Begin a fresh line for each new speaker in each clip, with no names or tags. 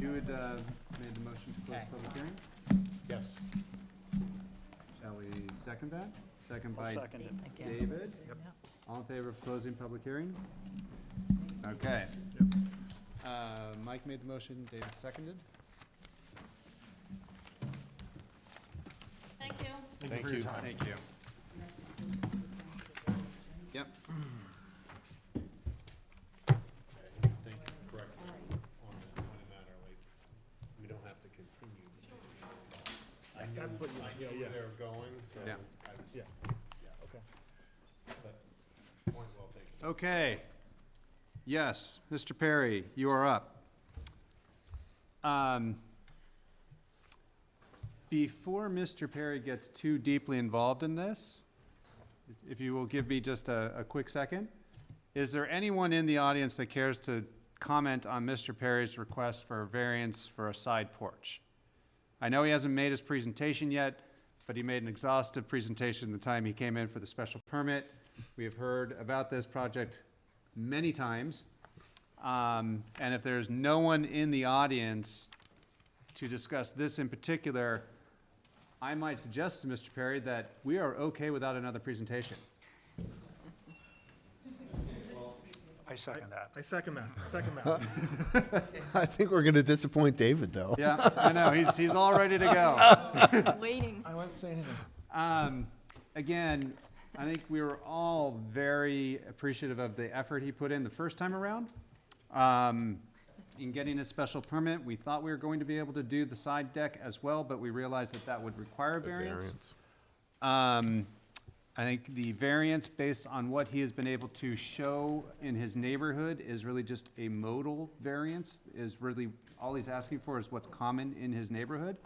you had uh, made the motion to close
Okay.
the public hearing.
Yes.
Shall we second that? Second
I'll
by
second it.
Again.
David.
Yep.
All in favor of closing public hearing? Okay. Uh, Mike made the motion, David seconded.
Thank you.
Thank you for your time.
Thank you. Yep.
Thank you, correct, on the, on the matter, like, we don't have to continue. I knew,
That's what you-
I
yeah,
knew where
yeah.
they were going, so
Yeah.
I was,
Yeah.
yeah,
Okay.
but, point well taken.
Okay. Yes, Mr. Perry, you are up. Um, Before Mr. Perry gets too deeply involved in this, if you will give me just a, a quick second, is there anyone in the audience that cares to comment on Mr. Perry's request for a variance for a side porch? I know he hasn't made his presentation yet, but he made an exhaustive presentation the time he came in for the special permit. We have heard about this project many times. Um, and if there's no one in the audience to discuss this in particular, I might suggest to Mr. Perry that we are okay without another presentation.
I second that.
I second that, second that.
I think we're going to disappoint David, though.
Yeah, I know, he's, he's all ready to go.
Waiting.
I won't say anything.
Um, again, I think we were all very appreciative of the effort he put in the first time around. Um, in getting a special permit, we thought we were going to be able to do the side deck as well, but we realized that that would require a variance. Um, I think the variance based on what he has been able to show in his neighborhood is really just a modal variance, is really, all he's asking for is what's common in his neighborhood.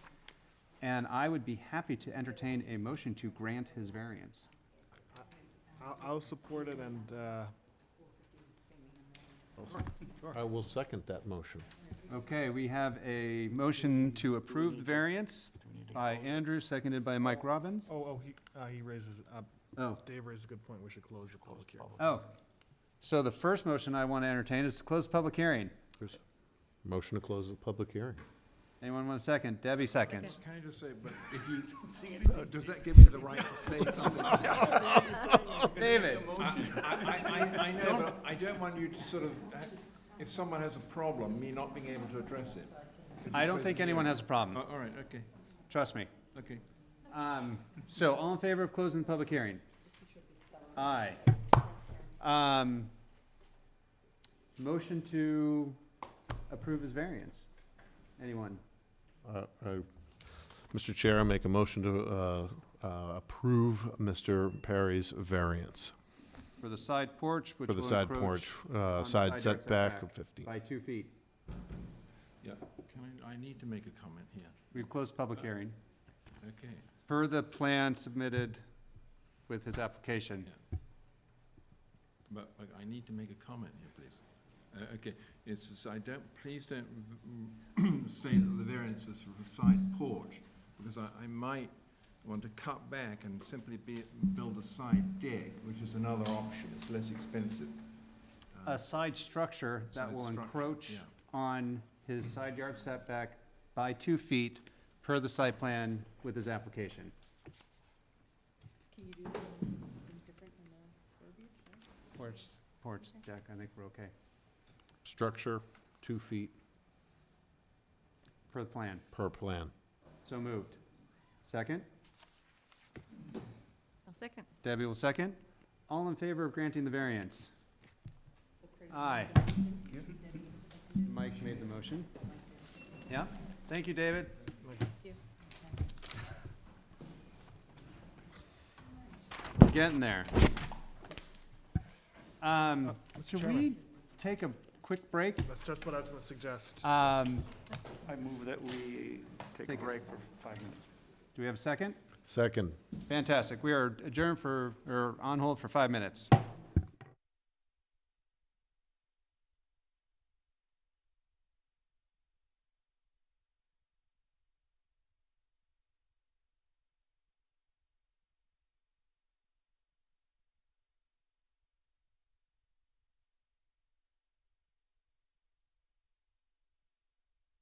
And I would be happy to entertain a motion to grant his variance.
I'll, I'll support it and, uh,
I will second that motion.
Okay, we have a motion to approve the variance by Andrew, seconded by Mike Robbins.
oh, oh, he, uh, he raises, uh,
Oh,
Dave raises a good point, we should close the public hearing.
oh. So the first motion I want to entertain is to close the public hearing.
Motion to close the public hearing.
Anyone want a second? Debbie seconds.
Can I just say, but if you, uh, does that give me the right to say something?
David?
I, I, I know, but I don't want you to sort of, uh, if someone has a problem, me not being able to address it.
I don't think anyone has a problem,
Uh,
Oh, All right, okay,
trust me.
okay.
Um, So, all in favor of closing the public hearing? Aye. Um, Motion to approve his variance? Anyone?
Uh, I- Mr. Chair, I make a motion to uh, uh, approve Mr. Perry's variance
For the side porch, which
for
will
the
encroach...
side porch,
on
uh,
the
side
yard
setback of 50.
By two feet.
Yeah, can I, I need to make a comment here,
We've closed public hearing.
okay.
Per the plan submitted with his application.
But but I need to make a comment here, please. Uh, Okay, it's, it's- I don't, please don't v- mm, say that the variance is for the side porch, because I, I might want to cut back and simply be, build a side deck, which is another option, it's less expensive.
A side structure that
Side
will
structure,
encroach
yeah.
on his side yard setback by two feet per the site plan with his application.
Can you do something different in the verbiage?
Porch, porch deck, I think we're okay,
Structure, two feet
per the plan.
per plan.
So moved. Second?
I'll second.
Debbie will second. All in favor of granting the variance? Aye. Mike made the motion. Yeah? Thank you, David.
you.
We're Getting there. Um, should
Chairman.
we take a quick break?
That's just what I was gonna suggest.
Um,
I move that we take
a
break for five minutes.
do we have a second?
Second.
Fantastic. We are adjourned for, or on hold for five minutes.